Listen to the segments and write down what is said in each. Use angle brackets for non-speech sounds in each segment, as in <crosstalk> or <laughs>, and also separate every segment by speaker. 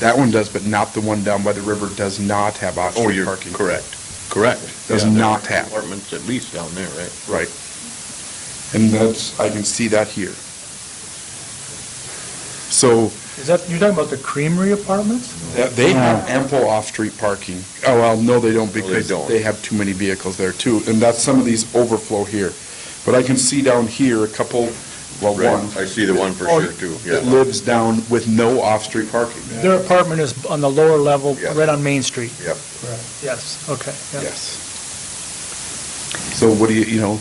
Speaker 1: That one does, but not the one down by the river does not have
Speaker 2: Oh,
Speaker 1: off-street
Speaker 2: you're
Speaker 1: parking.
Speaker 2: correct, correct.
Speaker 1: Does
Speaker 2: Yeah, there
Speaker 1: not
Speaker 2: are
Speaker 1: have.
Speaker 2: Apartments at least down there, right?
Speaker 1: Right. And that's, I can see that here. So
Speaker 3: Is that, you're talking about the Creamery Apartments?
Speaker 1: that- they have ample off-street parking. Oh, well, no, they don't
Speaker 2: they
Speaker 1: because
Speaker 2: don't.
Speaker 1: they have too many vehicles there too. And that's some of these overflow here. But I can see down here a couple, well, one,
Speaker 2: Right. I see the one for
Speaker 3: Oh,
Speaker 2: sure too,
Speaker 1: that
Speaker 2: yeah,
Speaker 1: lives down with no off-street parking.
Speaker 3: Their apartment is on the lower level,
Speaker 2: Yeah.
Speaker 3: right on Main Street.
Speaker 2: yeah.
Speaker 3: Yes, okay. yeah.
Speaker 1: Yes. So what do you, you know,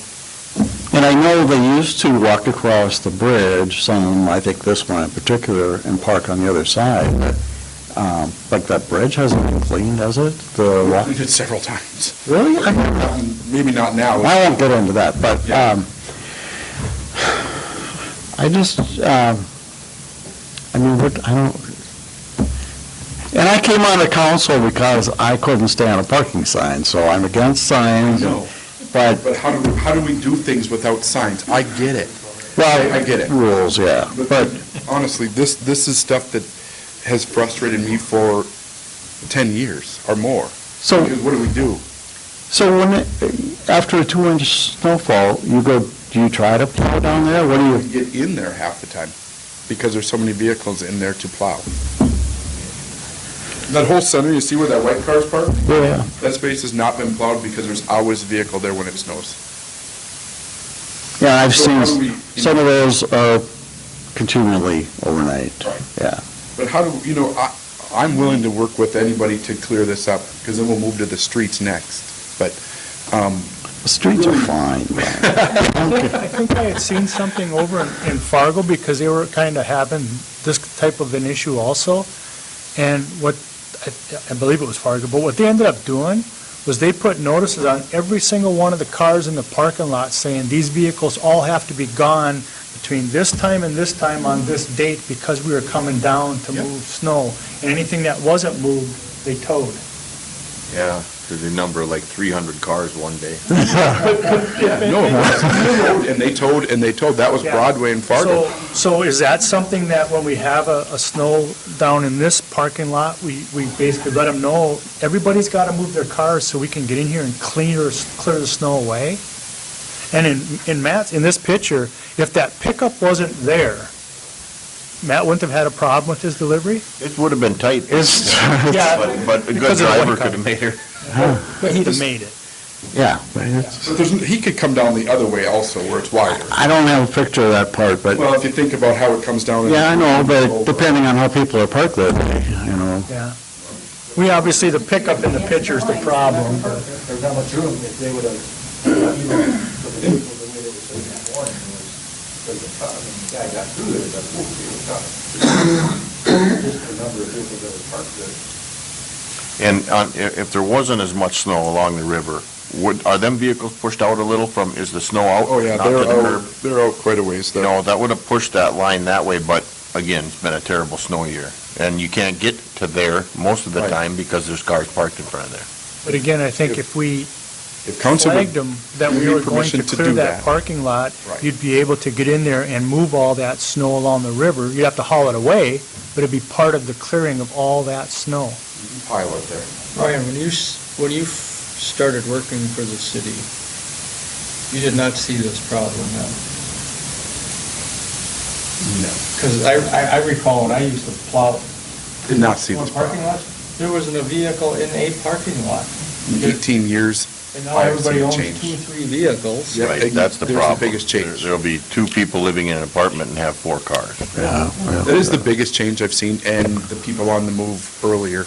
Speaker 4: And I know they used to walk across the bridge, some, I think this one in particular, and park on the other side, but, um, like that bridge hasn't been cleaned, has it? The walk,
Speaker 1: we did several <laughs> times.
Speaker 4: really? I
Speaker 1: Maybe not now.
Speaker 4: I won't get into that, but,
Speaker 1: Yeah.
Speaker 4: um, I just, um, I mean, what, I don't, and I came on the council because I couldn't stand a parking sign, so I'm against signs,
Speaker 1: No.
Speaker 4: but,
Speaker 1: But how do, how do we do things without signs? I get it.
Speaker 4: well.
Speaker 1: I get it.
Speaker 4: Rules, yeah, but
Speaker 1: But honestly, this, this is stuff that has frustrated me for 10 years or more.
Speaker 4: So-
Speaker 1: Because What do we do?
Speaker 4: So when, it- after a two-inch snowfall, you go, do you try to plow down there? What do
Speaker 1: We
Speaker 4: you,
Speaker 1: get in there half the time because there's so many vehicles in there to plow. That whole center, you see where that white car's parked?
Speaker 4: yeah,
Speaker 1: That space has not been plowed because there's always a vehicle there when it snows.
Speaker 4: yeah, I've
Speaker 1: So
Speaker 4: seen,
Speaker 1: how do we-
Speaker 4: some of those are continually overnight,
Speaker 1: Right.
Speaker 4: yeah.
Speaker 1: But how do, you know, I, I'm willing to work with anybody to clear this up because then we'll move to the streets next. But, um,
Speaker 4: The Streets are fine, Brian.
Speaker 3: I think I had seen something over in in Fargo because they were kind of having this type of an issue also. And what, I- I believe it was Fargo, but what they ended up doing was they put notices on every single one of the cars in the parking lot saying, these vehicles all have to be gone between this time and this time on this date because we were coming down to
Speaker 1: Yep.
Speaker 3: move snow. And anything that wasn't moved, they towed.
Speaker 2: Yeah, there's a number like three hundred cars one day.
Speaker 1: No, it wasn't. They towed, and they towed, and they towed, that was
Speaker 3: Yeah.
Speaker 1: Broadway and Fargo.
Speaker 3: So, so is that something that when we have a, a snow down in this parking lot, we, we basically let them know, everybody's gotta move their cars so we can get in here and clear, clear the snow away? And in, in Matt's, in this picture, if that pickup wasn't there, Matt wouldn't have had a problem with his delivery?
Speaker 2: It would have been tight.
Speaker 4: It's,
Speaker 2: But, but a good
Speaker 3: Because of the white
Speaker 2: driver
Speaker 3: car.
Speaker 2: could have made it.
Speaker 3: But he'd have made it.
Speaker 4: yeah. but it's-
Speaker 1: But there's, he could come down the other way also, where it's wider.
Speaker 4: I don't have a picture of that part, but,
Speaker 1: Well, if you think about how it comes down. and-
Speaker 4: yeah, I know, but depending on how people are parked that day, you know.
Speaker 3: Yeah. We obviously, the pickup in the picture is the problem, but-
Speaker 5: There's not much room if they would have, you know, for the vehicle, the way they were saying that morning was, there's a car, and the guy got through there, but whoop, he was done. Just the number of vehicles that were parked there.
Speaker 2: And on, if, if there wasn't as much snow along the river, would, are them vehicles pushed out a little from, is the snow out?
Speaker 1: Oh, yeah,
Speaker 2: Not to
Speaker 1: they're
Speaker 2: the curb?
Speaker 1: out, they're out quite a ways
Speaker 2: You
Speaker 1: there.
Speaker 2: know, that would have pushed that line that way, but again, it's been a terrible snow year. And you can't get to there most of the
Speaker 1: Right.
Speaker 2: time because there's cars parked in front of there.
Speaker 3: but again, I think if we
Speaker 1: If council
Speaker 3: flagged
Speaker 1: would,
Speaker 3: them that
Speaker 1: give
Speaker 3: we
Speaker 1: you
Speaker 3: were going
Speaker 1: permission
Speaker 3: to
Speaker 1: to
Speaker 3: clear
Speaker 1: do
Speaker 3: that
Speaker 1: that.
Speaker 3: parking lot,
Speaker 1: Right.
Speaker 3: you'd be able to get in there and move all that snow along the river. You'd have to haul it away, but it'd be part of the clearing of all that snow.
Speaker 1: pile it there.
Speaker 6: Ryan, when you, s- when you f- started working for the city, you did not see this problem, no?
Speaker 1: No.
Speaker 6: Because I, I- I recall when I used to plow.
Speaker 1: Did not see
Speaker 6: one
Speaker 1: this problem.
Speaker 6: Parking lot, there wasn't a vehicle in a parking lot.
Speaker 1: In Eighteen years.
Speaker 6: And now
Speaker 1: I have
Speaker 6: everybody
Speaker 1: seen
Speaker 6: owns
Speaker 1: change.
Speaker 6: two, three vehicles.
Speaker 1: Yeah,
Speaker 2: Right,
Speaker 1: and
Speaker 2: that's the
Speaker 1: there's
Speaker 2: problem.
Speaker 1: biggest change.
Speaker 2: There'll be two people living in an apartment and have four cars.
Speaker 4: Yeah, yeah.
Speaker 1: That is the biggest change I've seen, and the people on the move earlier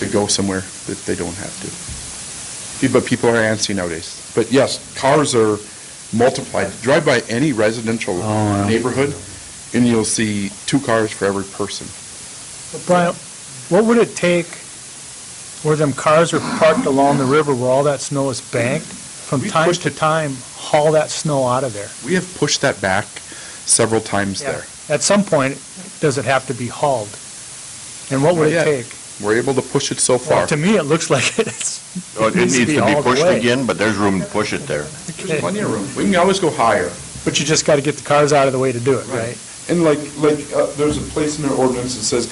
Speaker 1: to go somewhere that they don't have to. Pe- But people are antsy nowadays. But yes, cars are multiplied. Drive by any residential
Speaker 4: Oh, yeah.
Speaker 1: neighborhood, and you'll see two cars for every person.
Speaker 3: But Brian, what would it take where them cars are parked along the river where all that snow is banked? From
Speaker 1: We
Speaker 3: time
Speaker 1: pushed
Speaker 3: to time, haul that snow out of there.
Speaker 1: We have pushed that back several times there.
Speaker 3: At some point, does it have to be hauled? And what would
Speaker 1: Not yet.
Speaker 3: it take?
Speaker 1: We're able to push it so
Speaker 3: Well,
Speaker 1: far.
Speaker 3: to me, it looks like <laughs> it's,
Speaker 2: Oh, It needs to be
Speaker 3: hauled
Speaker 2: pushed
Speaker 3: away.
Speaker 2: again, but there's room to push it there.
Speaker 1: There's plenty of room. We can always go higher.
Speaker 3: But you just got to get the cars out of the way to do it, right?
Speaker 1: And like, like, uh, there's a place in our ordinance that says